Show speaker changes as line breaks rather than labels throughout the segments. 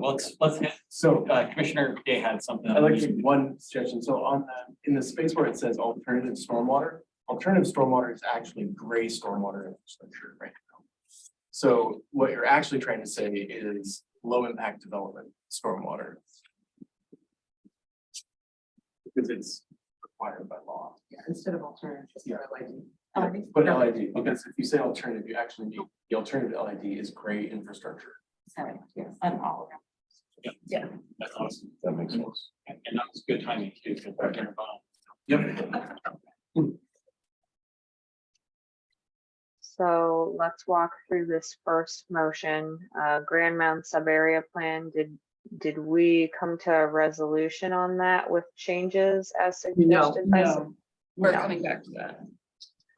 let's, let's, hit-
So uh,
uh, Commissioner Day had something.
I'd like to make one suggestion. So on, the- in the space where it says alternative stormwater, alternative stormwater is actually gray stormwater infrastructure right now. So what you're actually trying to say is low impact development stormwater. Because it's required by law.
Yeah, instead of alternative, just
Yeah.
LID.
Oh,
Yeah, But LID, because if you say alternative, you actually need, the alternative LID is gray infrastructure.
Sorry, yes, I'm all around.
That's awesome.
That makes sense.
And and that was good timing too. because we're gonna vote.
Yep.
So let's walk through this first motion, uh, Grand Mound Subarea Plan, did, did we come to a resolution on that with changes as
No,
suggested? by s-
no, we're
No.
coming back to that.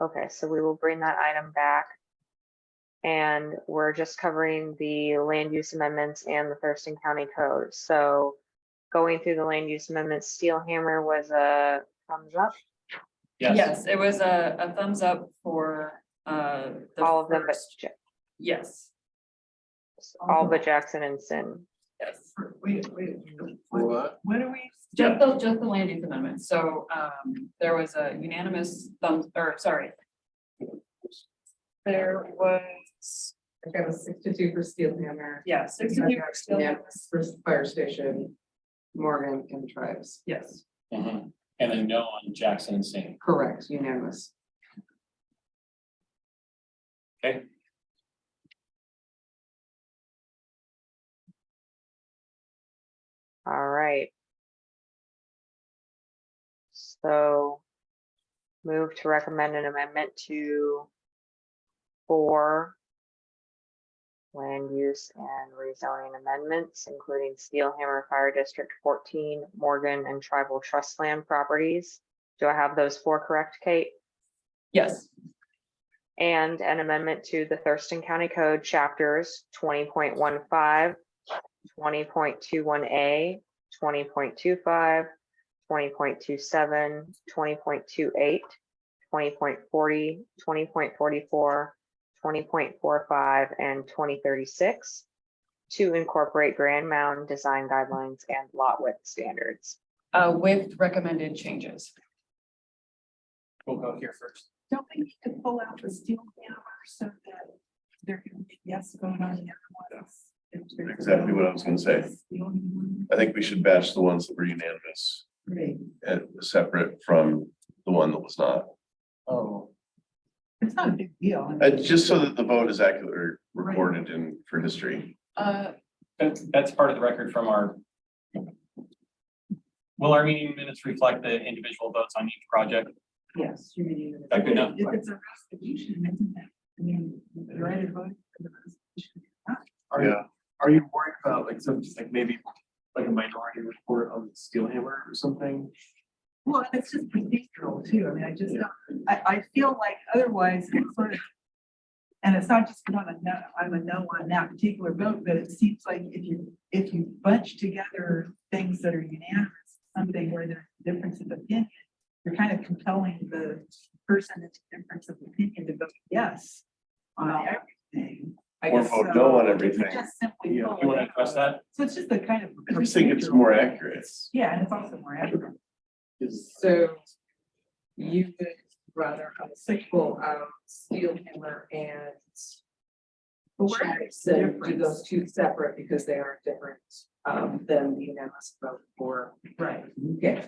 Okay, so we will bring that item back. And we're just covering the land use amendments and the Thurston County Code, so going through the land use amendments, Steel Hammer was a thumbs up,
Yes,
Yes, it was a, a thumbs up for, uh. the
all of them, but,
first- Mm-hmm.
Ja-
Yes,
all but Jackson and Sin.
yes.
Wait, wait, what,
What?
what are we?
Just the, just the land use amendment. So, um, there was a unanimous thumbs, or sorry. There was,
Okay, it was six to two for Steel Hammer.
yeah, sixty-two for Steel Hammer.
For fire station, Morgan and tribes.
Yes,
Mhm. and then no on Jackson and Singh.
Correct, unanimous.
All right. So move to recommend an amendment to four land use and rezoning amendments, including Steel Hammer Fire District fourteen, Morgan and Tribal Trust Land properties. Do I have those four correct, Kate?
yes,
And an amendment to the Thurston County Code chapters 20.15, 20.21A, 20.25, 20.27, 20.28, 20.40, 20.44, 20.45, and 2036 to incorporate Grand Mound design guidelines and lot width standards.
uh, with recommended changes.
We'll go here first.
Don't we need to pull out the Steel Hammer so that there can be yes going on the other ones?
Exactly what I was gonna say. I think we should batch the ones that were unanimous
Great.
and separate from the one that was not.
Oh,
It's not a big deal.
Uh, just so that the vote is accurately recorded in for history.
Uh,
That's, that's part of the record from our. Will our meeting minutes reflect the individual votes on each project?
Yes. you may need it.
That good enough?
If it's a restitution, isn't that, I mean, the right of vote for the restitution.
are you, are you worried about like some, just like maybe like a minority report on Steel Hammer or something?
Well, and it's just procedural too. I mean, I just, don't- I, I feel like otherwise it's sort of. And it's not just because I'm a no, I'm a no on that particular vote, but it seems like if you, if you bunch together things that are unanimous, something where there's difference of opinion, you're kind of compelling the person that's difference of opinion to vote yes on everything.
I
Or
guess,
vote
so.
no on everything.
You just simply
Yeah,
pull
Do you want
it
to address
out.
that?
So it's just the kind of.
I just think it's more accurate.
Yeah, and it's also more accurate.
Is-
So you would rather have a sequel of Steel Hammer and
But where is the
Jackson, do
difference?
those two separate because they are different um than the unanimous vote for.
Right.
Yeah,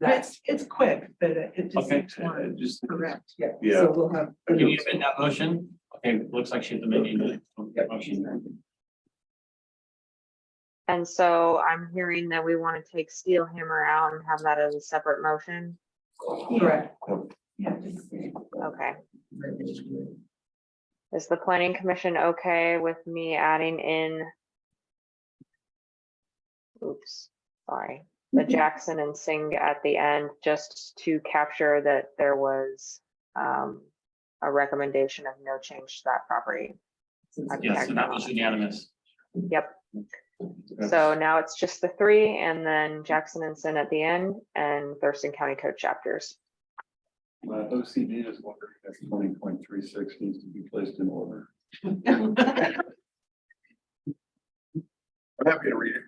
that's
It's, it's quick, but it it just
Okay.
seems
Uh,
more
just.
correct.
yeah.
Yeah.
So we'll have.
Can you amend that motion? Okay, looks like she's amending the motion.
And so I'm hearing that we want to take Steel Hammer out and have that as a separate motion.
Correct.
Yeah, just-
Okay. Is the planning commission okay with me adding in? Oops, sorry,
Mhm.
the Jackson and Singh at the end, just to capture that there was um. A recommendation of no change to that property. I think I
Yes, so that was unanimous.
got- So now it's just the three and then Jackson and Sin at the end and Thurston County Code chapters.
My OCD is wondering if twenty point three six needs to be placed in order. I'm happy to read it.